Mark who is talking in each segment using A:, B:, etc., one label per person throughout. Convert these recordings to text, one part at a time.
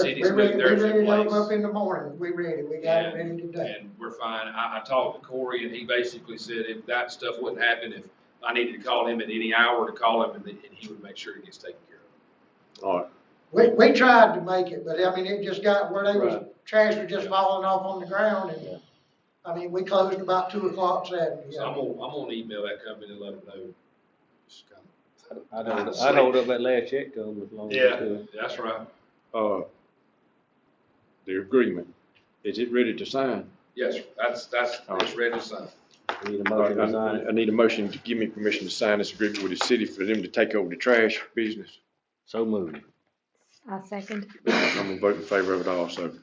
A: city's
B: We
A: moved
B: ready, we
A: theirs
B: ready
A: in
B: to open up
A: place.
B: in the morning, we ready, we got it ready today.
A: And we're fine. I, I talked to Corey and he basically said if that stuff wouldn't happen, if I needed to call him at any hour to call him and then- and he would make sure it gets taken care of.
C: All right,
B: We, we tried to make it, but I mean, it just got where they was,
C: Right.
B: trash was just falling off on the ground
C: Yeah.
B: and, I mean, we closed about two o'clock Saturday.
A: So I'm gonna, I'm gonna email that company and let them know. Just kinda-
D: I'd hold, I'd hold up that last check to them as long as I
A: Yeah,
D: could.
A: that's right.
C: uh, the agreement, is it ready to sign?
A: Yes, that's, that's, it's ready to sign.
D: We Need a
C: All right,
D: motion to sign
C: I
D: it.
C: I need a motion to give me permission to sign this agreement with the city for them to take over the trash business.
D: So moved.
E: I second.
C: I'm gonna vote in favor of it also.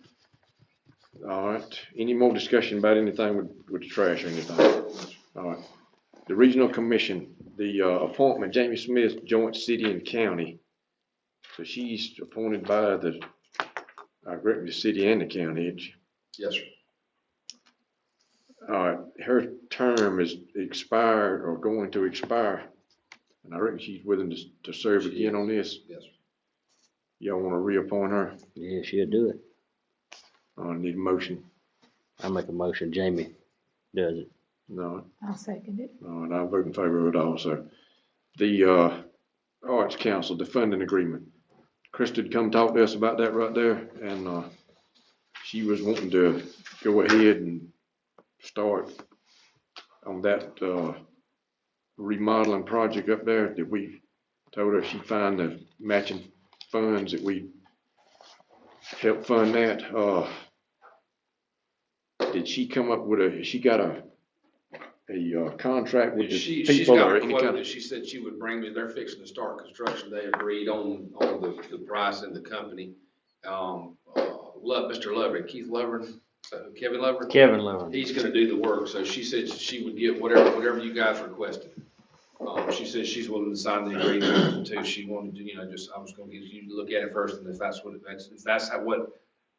C: All right, any more discussion about anything with, with the trash or anything? All right, the regional commission, the, uh, appointment, Jamie Smith, joint city and county. So she's appointed by the, I reckon the city and the county, ain't she?
A: Yes, sir.
C: uh, her term is expired or going to expire. And I reckon she's willing to, to serve again on this.
A: yes, sir.
C: Y'all wanna reappoint her?
D: Yeah, she'll do it.
C: I need a motion.
D: I make a motion, Jamie does it.
C: No,
E: I second it.
C: no, and I vote in favor of it also. The, uh, Arts Council, the funding agreement. Krista come talk to us about that right there and, uh, she was wanting to go ahead and start on that, uh, remodeling project up there that we told her she'd find the matching funds that we help fund that, uh. Did she come up with a, she got a, a, uh, contract with the
A: She, she's
C: people
A: got
C: or
A: a
C: any
A: quote
C: kind
A: that
C: of?
A: she said she would bring me, they're fixing to start construction, they agreed on, on the, the price and the company. Um, uh, Love, Mr. Lovren, Keith Lovren, uh, Kevin Lovren,
D: Kevin Lovren.
A: he's gonna do the work, so she said she would get whatever, whatever you guys requested. Um, she says she's willing to sign the agreement too, she wanted to, you know, just, I was gonna give you, to look at it first, and if that's what, if that's, if that's how- what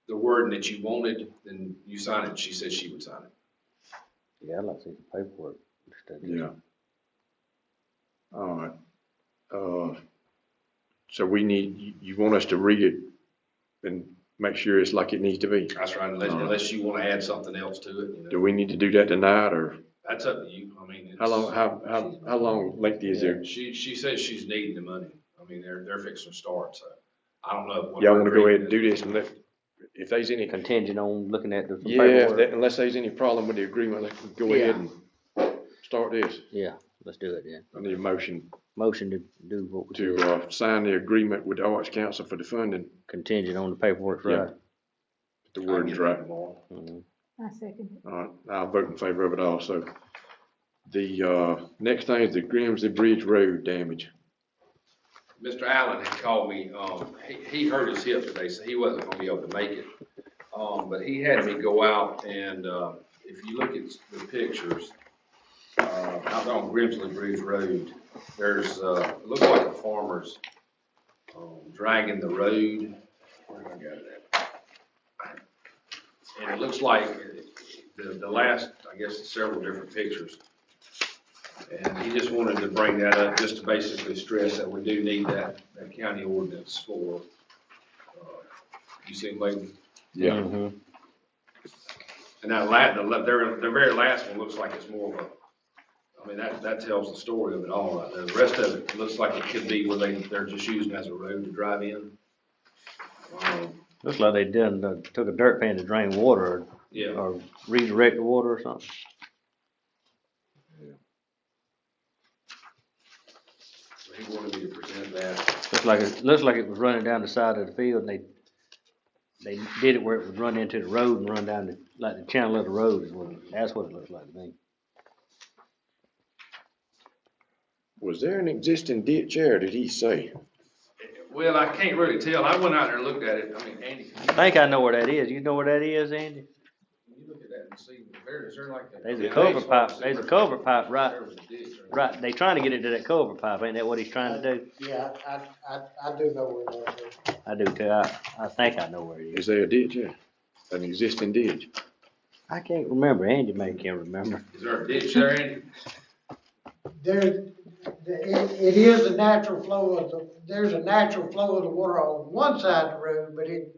A: the wording that you wanted, then you sign it, she said she would sign it.
D: Yeah, I'd like to see the paperwork.
C: Yeah. All right, uh, so we need, you, you want us to read it and make sure it's like it needs to be?
A: That's right, unless, unless you wanna add something else to it, you know.
C: Do we need to do that tonight or
A: That's up to you, I mean.
C: how long,
A: it's-
C: how, how, how long lengthy is there?
A: She, she says she's needing the money, I mean, they're, they're fixing to start, so, I don't know. what
C: Y'all wanna go ahead and
A: agreement
C: do this and let, if there's any,
D: Contingent on looking at the
C: yeah, if
D: paperwork.
C: that- unless there's any problem with the agreement, let's go ahead and start this.
D: Yeah, let's do it then.
C: I need a motion
D: Motion to do what we
C: to,
D: do,
C: uh, sign the agreement with the Arts Council for the funding,
D: contingent on the paperwork's
C: Yeah.
D: right.
C: the
A: is. I'll
C: word's
A: get
C: right.
A: that tomorrow.
D: Mhm.
E: I second it.
C: All right, I'll vote in favor of it also. The, uh, next thing is the Grimsley Bridge Road damage.
A: Mr. Allen had called me, um, he, he hurt his hip today, so he wasn't gonna be able to make it. Um, but he had me go out and, uh, if you look at the pictures, uh, out on Grimsley Bridge Road, there's, uh, it looks like a farmer's, um, dragging the road. Where did I got it at? And it looks like the, the last, I guess, several different pictures. And he just wanted to bring that up, just to basically stress that we do need that, that county ordinance for, uh, you see, like,
D: Mhm.
A: and that la, the, la- their, their very last one looks like it's more of a, I mean, that, that tells the story of it all right there. The rest of it looks like it could be where they, they're just using as a road to drive in. Um,
D: Looks like they done, uh, took a dirt pan to drain water or,
A: Yeah,
D: or redirect the water or something.
A: so he wanted me to present that.
D: Looks like, it looks like it was running down the side of the field and they, they did it where it would run into the road and run down the, like the channel of the road is what, it- that's what it looks like to me.
C: Was there an existing ditch there, did he say?
A: Well, I can't really tell. I went out there and looked at it. I mean, Andy, can you-
D: I think I know where that is. You know where that is, Andy?
A: can you look at that and see, where, is there like a?
D: There's
A: Yeah,
D: a
A: they
D: culvert
A: just
D: pipe,
A: wanted to see
D: there's a
A: where-
D: culvert pipe right,
A: There was a ditch or-
D: right, they trying to get it to that culvert pipe, ain't that what he's trying to do?
B: Yeah, I, I, I do know where that is.
D: I do too, I, I think I know where it is.
C: Is there a ditch there? An existing ditch?
D: I can't remember, Andy may can remember.
A: Is there a ditch there, Andy?
B: There, the- it, it is a natural flow of, the there's a natural flow of the water on one side of the road, but it